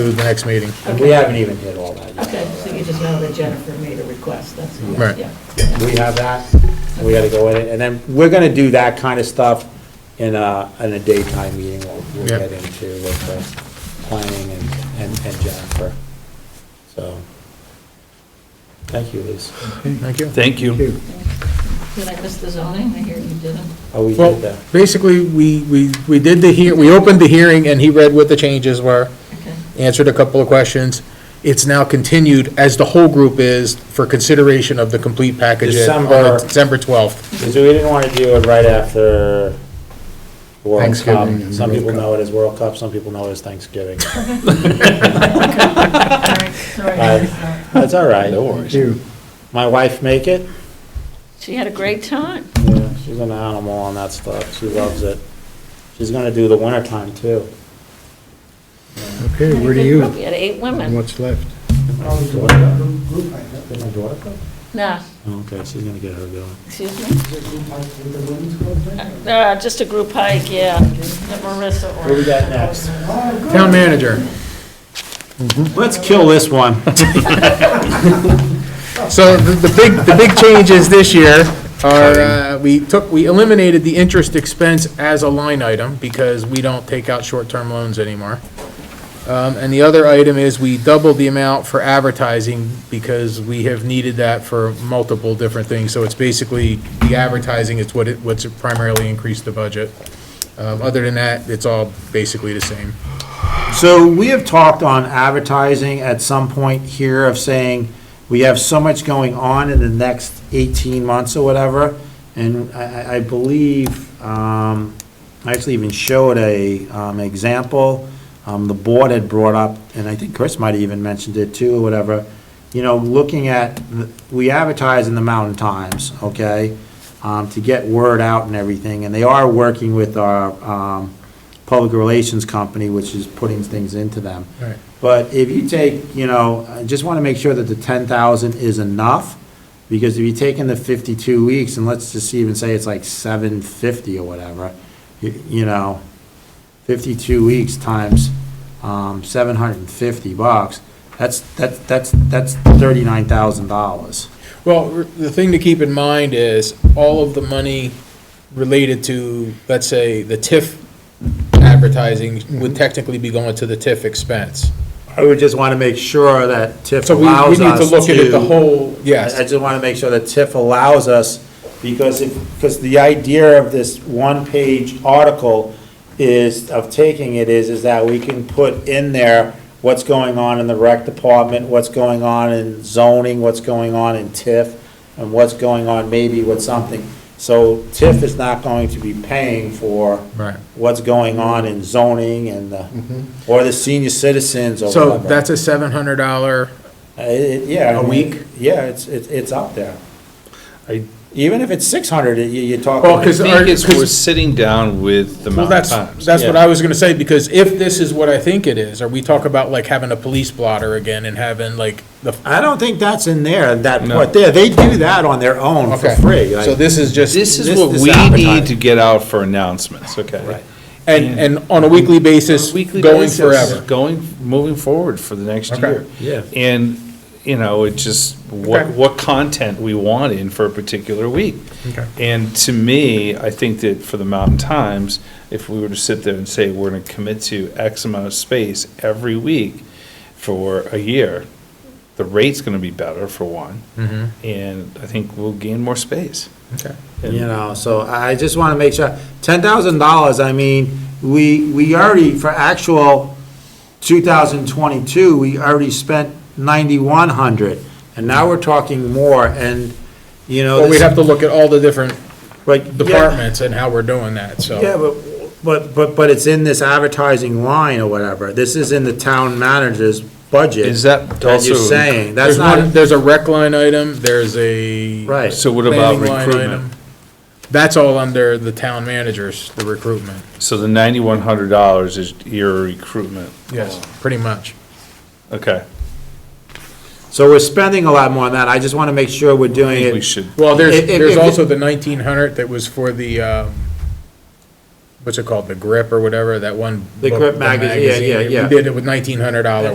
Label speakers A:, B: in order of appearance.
A: to the next meeting.
B: We haven't even hit all that yet.
C: Okay, so you just know that Jennifer made a request, that's all.
A: Right.
C: Yeah.
B: We have that, and we gotta go in it, and then we're gonna do that kind of stuff in a, in a daytime meeting, we'll, we'll
A: Yeah.
B: get into with the planning and, and and Jennifer. So, thank you, Liz.
A: Thank you.
D: Thank you.
C: Did I miss the zoning? I hear you didn't.
B: Oh, we did
A: Well,
B: that.
A: basically, we, we, we did the hear, we opened the hearing and he read what the changes were,
C: Okay,
A: answered a couple of questions. It's now continued, as the whole group is, for consideration of the complete package on
B: December-
A: the December 12th.
B: Because we didn't wanna do it right after World Cup.
A: Thanksgiving and
B: Some
A: World
B: people
A: Cup.
B: know it as World Cup, some people know it as Thanksgiving.
C: sorry, sorry.
B: Aye. That's all right. No worries. My wife make it?
C: She had a great time.
B: Yeah, she's an animal on that stuff. She loves it. She's gonna do the wintertime too.
E: Okay, where do you,
C: We had eight women.
E: what's left?
B: Oh, Did my daughter go?
C: Nah,
B: Oh, Okay, she's gonna get her going.
C: excuse me? Uh, just a group hike, yeah, that Marissa
B: What we
C: or
B: got next?
A: Town manager.
B: Let's kill this one.
A: So the the big, the big changes this year are, uh, we took, we eliminated the interest expense as a line item because we don't take out short-term loans anymore. Um, And the other item is we doubled the amount for advertising because we have needed that for multiple different things. So it's basically, the advertising is what it, what's primarily increased the budget. Um, Other than that, it's all basically the same.
B: So we have talked on advertising at some point here of saying, we have so much going on in the next 18 months or whatever, and I, I- I believe, um, I actually even showed a, um, example, um, the board had brought up, and I think Chris might have even mentioned it too, or whatever, you know, looking at, the- we advertise in the Mountain Times, okay? um, to get word out and everything, and they are working with our um, public relations company, which is putting things into them.
A: Right.
B: But if you take, you know, I just want to make sure that the 10,000 is enough, because if you take in the 52 weeks, and let's just even say it's like 750 or whatever, y- you know, 52 weeks times um, 750 bucks, that's, that's, that's that's $39,000.
A: Well, r- the thing to keep in mind is all of the money related to, let's say, the TIF advertising would technically be going to the TIF expense.
B: I would just want to make sure that TIF
A: So we, we
B: allows
A: need
B: us
A: to
B: to.
A: look at it the whole, yes.
B: I I just want to make sure that TIF allows us, because if, because the idea of this one-page article is, of taking it is, is that we can put in there what's going on in the rec department, what's going on in zoning, what's going on in TIF, and what's going on maybe with something. So TIF is not going to be paying for
A: Right. Mm-hmm.
B: what's going on in zoning and the, or the senior citizens or
A: So
B: whatever.
A: that's a seven hundred dollar,
B: Uh, it- Yeah.
A: A
B: I mean,
A: week?
B: Yeah, it's, it's it's up there.
D: I-
B: Even if it's 600, you- you're talking.
A: Well,
D: I
A: 'cause our-
D: think it's, we're
A: 'cause-
D: sitting down with the
A: well,
D: Mountain
A: that's,
D: Times.
A: that's what
B: yeah.
A: I was gonna say, because if this is what I think it is, or we talk about like having a police blotter again and having like the.
B: I don't think that's in there, that
D: No.
B: part there. They do that on their own for
A: Okay.
B: free. like-
A: So this is just.
D: This is
B: this-
D: what
B: this
D: we need to
B: advertising.
D: get out for announcements, okay?
B: Right.
A: And, and on a weekly basis,
D: Weekly
A: going
D: basis,
A: forever.
D: Going, moving forward for the next
A: Okay.
D: year.
B: Yeah.
D: And, you know, it just, what,
A: Okay.
D: what content we want in for a particular week.
A: Okay.
D: And to me, I think that for the Mountain Times, if we were to sit there and say, we're gonna commit to X amount of space every week for a year, the rate's gonna be better for one.
A: Mm-hmm.
D: And I think we'll gain more space.
A: Okay.
B: You know, so I I just want to make sure, ten thousand dollars, I mean, we, we already, for actual two thousand twenty-two, we already spent ninety-one hundred, and now we're talking more, and, you know.
A: But we'd
B: this-
A: have to look at all the different
B: like, yeah.
A: departments and how we're doing that,
B: Yeah,
A: so.
B: but, but, but, but it's in this advertising line or whatever. This is in the town manager's budget.
D: Is that
B: you're
D: also-
B: saying, that's
A: There's one,
B: not,
A: there's a rec line item, there's a.
B: right.
D: So what about
A: planning line
D: recruitment?
A: item. That's all under the town managers, the recruitment,
D: So the ninety-one hundred dollars is your recruitment,
A: yes,
B: Oh.
A: pretty much.
D: okay?
B: So we're spending a lot more on that. I just want to make sure we're
D: I
B: doing
D: think we
B: it.
D: should,
A: Well, there's,
B: If- if-
A: there's
B: if-
A: also the nineteen hundred that was for the, um, what's it called, the grip or whatever, that one.
B: The
A: book,
B: Grip magazine, yeah, yeah,
A: that
B: yeah.
A: We did it with nineteen hundred dollar